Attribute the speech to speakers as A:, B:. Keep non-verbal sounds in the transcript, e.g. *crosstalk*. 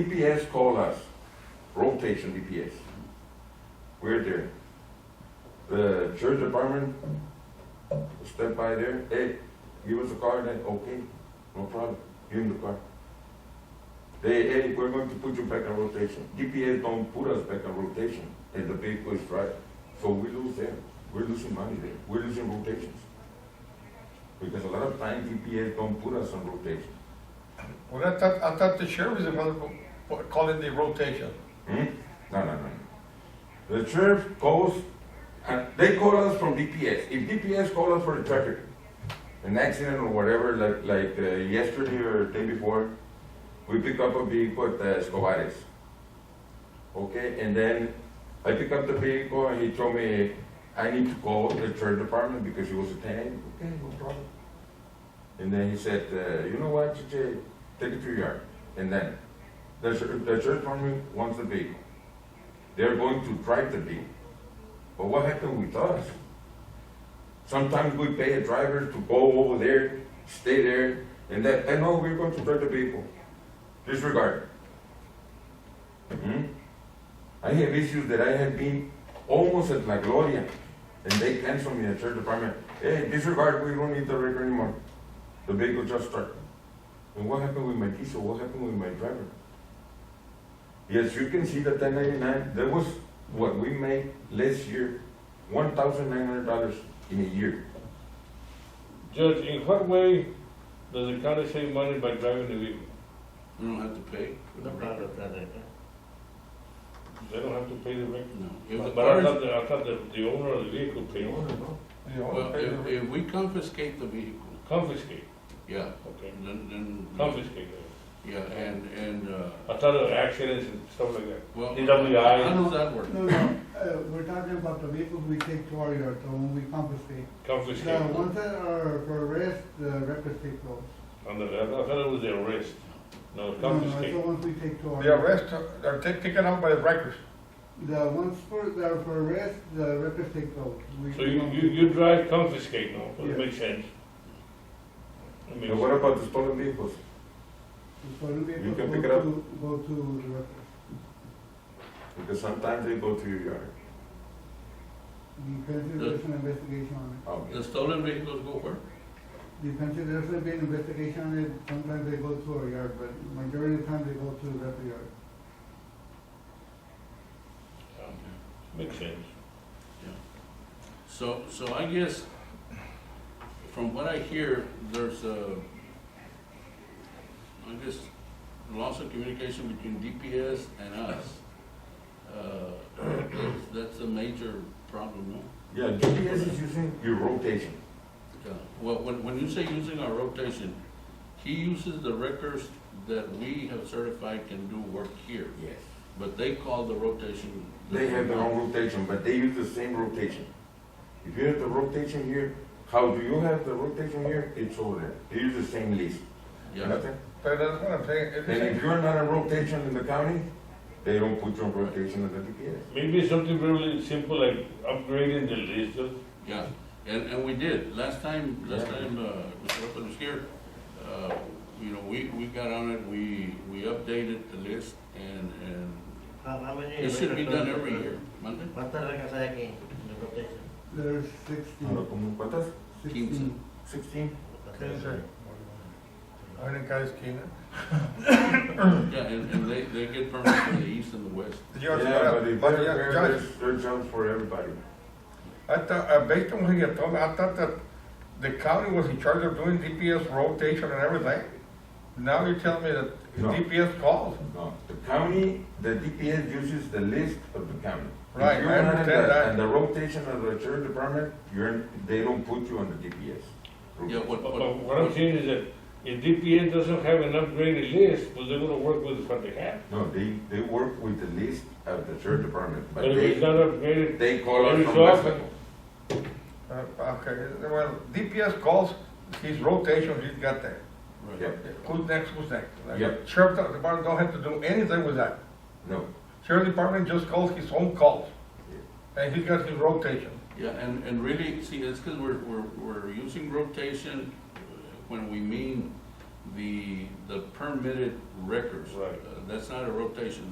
A: DPS called us, rotation DPS. We're there. The church department stepped by there, hey, give us a car, then, okay, no problem, give him the car. They, hey, we're going to put you back on rotation. DPS don't put us back on rotation, and the vehicle is right. So we lose there, we're losing money there, we're losing rotations. Because a lot of times DPS don't put us on rotation.
B: Well, I thought, I thought the sheriff was supposed to po- call in the rotation.
A: Hmm? No, no, no. The sheriff calls, and they call us from DPS. If DPS call us for a traffic, an accident or whatever, like, like uh, yesterday or day before, we pick up a vehicle at uh, Escobares. Okay, and then I pick up the vehicle and he told me I need to call the church department because he was a tenant. Okay, no problem. And then he said, uh, you know what, TJ, take it to your yard. And then the, chur- the church family wants the vehicle. They're going to drive the vehicle. But what happened with us? Sometimes we pay a driver to go over there, stay there, and that, and no, we're going to drive the vehicle. Disregard. Hmm? I have issues that I have been almost at La Gloria, and they cancel me at church department. Hey, disregard, we don't need the record anymore. The vehicle just started. And what happened with my diesel? What happened with my driver? Yes, you can see the ten ninety-nine, that was what we made last year, one thousand nine hundred dollars in a year.
C: Judge, in what way does the county save money by driving the vehicle?
D: We don't have to pay. for the record.
C: They don't have to pay the rent?
D: No. If,
C: But I thought, the- I thought the, the owner of the vehicle paid,
B: You know,
D: well,
B: pay the-
D: if, if we confiscate the vehicle,
C: confiscate,
D: yeah,
C: okay,
D: then, then.
C: confiscate.
D: Yeah, and, and, uh,
C: I thought of accidents and stuff like that.
D: well.
C: DWI.
D: How does that work?
E: No, no, uh, we're talking about the vehicles we take to our yard, the one we confiscate. The
C: Confiscate,
E: ones that are for arrest, the records take those.
C: on the, I thought it was the arrest, no,
E: No, no, it's the
C: confiscate.
E: ones we take to our.
B: The arrest, uh, they're ta- taken out by the records.
E: The ones for, that are for arrest, the records take those. We-
C: So
E: we
C: you,
E: don't-
C: you, you drive confiscate, no,
E: Yeah.
C: that makes sense. That makes
A: And what about the stolen vehicles?
E: the stolen
A: you
E: vehicles
A: can
E: go
A: pick it up.
E: to- Go to the records.
A: Because sometimes they go to your yard.
E: Depends if
D: The-
E: there's an investigation on it.
D: The stolen vehicles go where?
E: Depends if there's been investigation on it, sometimes they go to our yard, but majority of the time they go to the record yard.
C: Um, Makes sense.
D: So, so I guess, from what I hear, there's a, I guess, loss of communication between DPS and us. Uh, *coughs* That's a major problem, no?
A: Yeah, GPS is using your rotation.
D: Yeah, Well, when, when you say using our rotation, he uses the records that we have certified can do work here,
A: Yes.
D: but they call the rotation.
A: They have their own rotation, but they use the same rotation. If you have the rotation here, how do you have the rotation here? It's over there. They use the same list.
D: Yeah,
A: Nothing?
B: But that's what I'm saying, if
A: And if
B: it's,
A: you're not on rotation in the county, they don't put you on rotation in the DPS.
C: Maybe something really simple like upgrading the list, uh,
D: yeah, and, and we did, last time, last
A: Yeah.
D: time, uh, Mr. Lopez was here, uh, you know, we, we got on it, we, we updated the list, and, and
F: How, how many?
D: it should be done
F: records-
D: every year, Monday?
F: ¿Cuántas rejas hay aquí en el rotation?
A: Ahora,
E: There's sixteen,
A: ¿cómo cuántas?
E: sixteen.
A: Sixteen?
B: it's a- I think guys keen.
D: Yeah, and, and they, they get permits from the east and the west.
A: Yeah, but if
B: But,
A: they're
B: yeah,
A: there,
B: Judge,
A: there's, there's jobs for everybody.
B: I thought, uh, based on what you told me, I thought that the county was in charge of doing DPS rotation and everything. Now you're telling me that
A: No.
B: DPS calls.
A: No, the county, the DPS uses the list of the county.
B: Right,
A: If you're
B: I
A: not in
B: understand
A: the-
B: that.
A: And the rotation of the sheriff department, you're, they don't put you on the DPS.
D: Yeah, what,
C: But-
D: what.
C: But what I'm saying is that if DPS doesn't have an upgraded list, well, they're gonna work with what they have.
A: No, they, they work with the list of the sheriff department, but
C: But if it's
A: they,
C: not upgraded,
A: they call us
C: Every
A: from
C: so
A: West
C: often.
A: Laco.
B: Uh, okay, well, DPS calls, his rotation, he's got that.
D: right.
A: Yeah,
B: Who's next, who's next? Like,
A: Yep.
B: Sheriff Department don't have to do anything with that.
A: no,
B: Sheriff Department just calls his own calls. And he got his rotation.
D: Yeah, and, and really, see, that's because we're, we're, we're using rotation uh, when we mean the, the permitted records.
C: Right.
D: Uh, That's not a rotation,